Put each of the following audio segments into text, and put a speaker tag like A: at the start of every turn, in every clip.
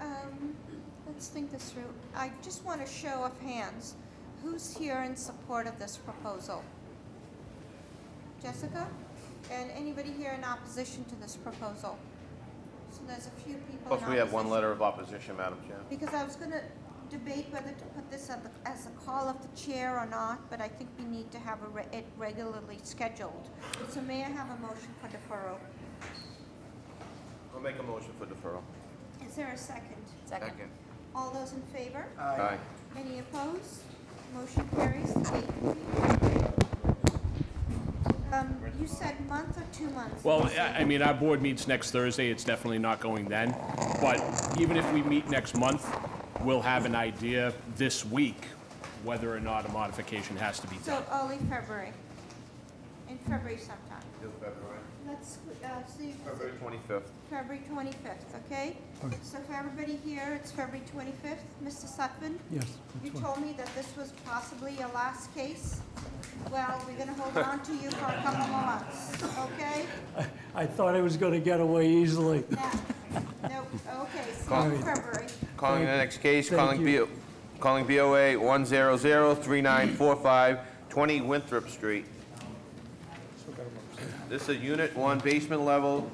A: Um, let's think this through. I just want a show of hands. Who's here in support of this proposal? Jessica? And anybody here in opposition to this proposal? So there's a few people in
B: Plus, we have one
A: opposition.
B: letter of opposition, Madam Chair.
A: Because I was gonna debate whether to put this at the, as a call of the chair or not, but I think we need to have a re- it regularly scheduled. So may I have a motion for deferral?
B: I'll make a motion for deferral.
A: Is there a second?
C: Second.
A: All those in favor?
B: Aye.
A: Any opposed? Motion carries. Kate, Um, you said month or two months?
D: Well, I, I mean, our board meets next Thursday, it's definitely not going then, but even if we meet next month, we'll have an idea this week whether or not a modification has to be done.
A: So early February, in February sometime. Let's, uh, see,
B: February 25th.
A: February twenty-fifth, okay? So for everybody here, it's February twenty-fifth. Mr. Sutphen?
E: Yes.
A: You
E: that's fine.
A: told me that this was possibly your last case. Well, we're gonna hold on to you for a couple more months, okay?
E: I thought I was going to get away easily.
A: Now, no, okay, see you
B: Call-
A: in February.
B: Calling the next case,
E: Thank
B: calling
E: you.
B: BO, calling BOA 1003945, 20 Winthrop Street. This is a unit one basement level,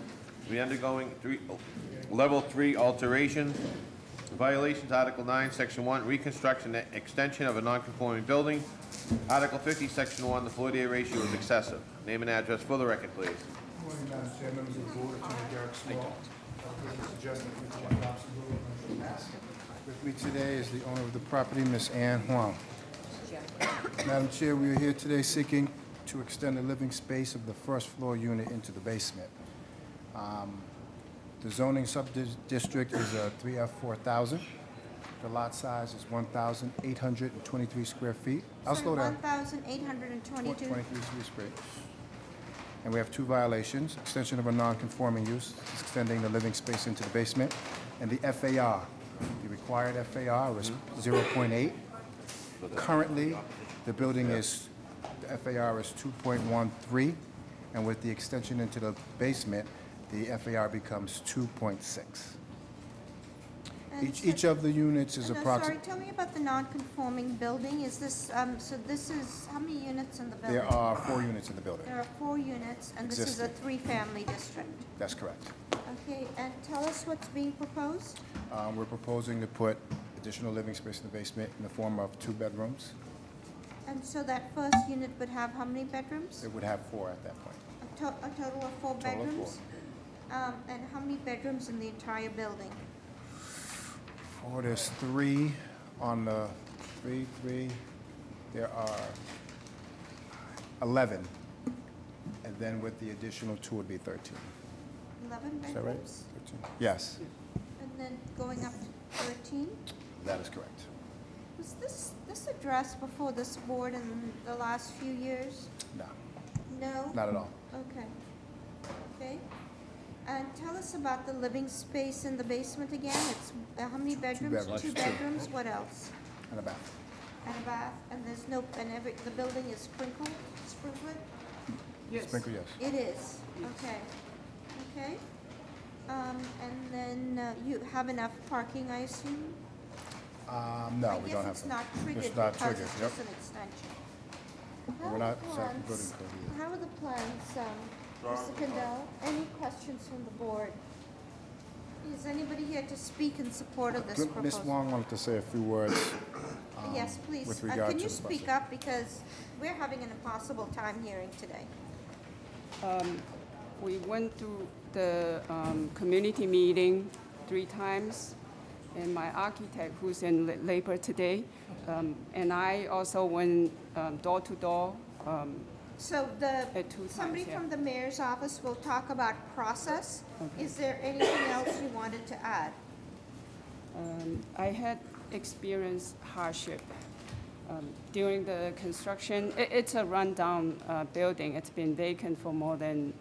B: we undergoing three, level three alteration. Violations, Article 9, Section 1, reconstruction, and extension of a non-conforming building. Article 50, Section 1, the floor to area ratio is excessive. Name and address for the record, please.
F: Morning, Madam Chair, members of the board, Attorney Derek Small. I've got a suggestion for Jim Dobson, who I'm going to ask. With me today is the owner of the property, Ms. Ann Huang. Madam Chair, we are here today seeking to extend the living space of the first floor unit into the basement. Um, The zoning sub-district is a 3F 4,000. The lot size is 1,823 square feet. I'll slow down.
A: One thousand eight hundred and twenty-two.
F: 23 Sweet Spring. And we have two violations, extension of a non-conforming use, extending the living space into the basement, and the FAR. The required FAR was 0.8. Currently, the building is, the FAR is 2.13, and with the extension into the basement, the FAR becomes 2.6. Each, each of the units is
A: uh, Sorry,
F: approximately,
A: tell me about the non-conforming building. Is this, um, so this is, how many units in the building?
F: there are four units in the building.
A: There are four units, and this is a
F: Existing.
A: three-family district.
F: That's correct.
A: Okay, and tell us what's being proposed?
F: Um, We're proposing to put additional living space in the basement in the form of two bedrooms.
A: And so that first unit would have how many bedrooms?
F: It would have four at that point.
A: A to- a total of four
F: Total of four.
A: bedrooms? Um, and how many bedrooms in the entire building?
F: Four, there's three on the, three, three, there are 11. And then with the additional two would be 13.
A: Eleven
F: Is that right?
A: bedrooms?
F: 13. Yes,
A: And then going up to thirteen?
F: that is correct.
A: Was this, this addressed before this board in the last few years?
F: No,
A: No?
F: not at all.
A: Okay. Okay. And tell us about the living space in the basement again. It's, uh, how many bedrooms?
F: bedrooms.
A: Two bedrooms, what else?
F: And a bathroom.
A: And a bath, and there's no, and every, the building is sprinkled, sprinkled?
F: Sprinkle, yes.
A: It is, okay, okay. Um, and then uh, you have enough parking, I assume?
F: Um, No, we don't
A: I
F: have.
A: guess it's
F: them.
A: not triggered
F: It's not
A: because
F: triggered,
A: it's
F: yep.
A: just an extension.
F: We're
A: How are
F: not
A: the
F: exactly building
A: plans-
F: code either.
A: How are the plans, um, Mr. Kendall? Any questions from the board? Is anybody here to speak in support of this proposal?
F: Ms. Uh, Wong wanted to say a few words. um,
A: Yes, please.
F: with
A: Uh,
F: regard
A: Can
F: to
A: you
F: the
A: speak
F: budget.
A: up because we're having an impossible time hearing today.
G: We went to the um, community meeting three times, and my architect, who's in la- labor today, um, and I also went um, door to door. um,
A: So the,
G: At two
A: somebody
G: times, yeah.
A: from the mayor's office will talk about process. Is there anything else you wanted to add?
G: um, I had experienced hardship um, during the construction. I- It's a rundown uh, building. It's been vacant for more than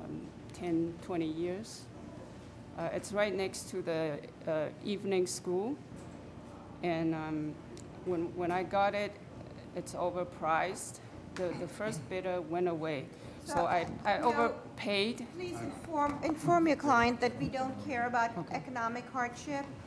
G: um, 10, 20 years. Uh, It's right next to the uh, evening school. And um, when, when I got it, it's overpriced. The, the first bidder went away. So I,
A: So,
G: I
A: no-
G: overpaid.
A: Please inform, inform your client that we don't care about economic hardship.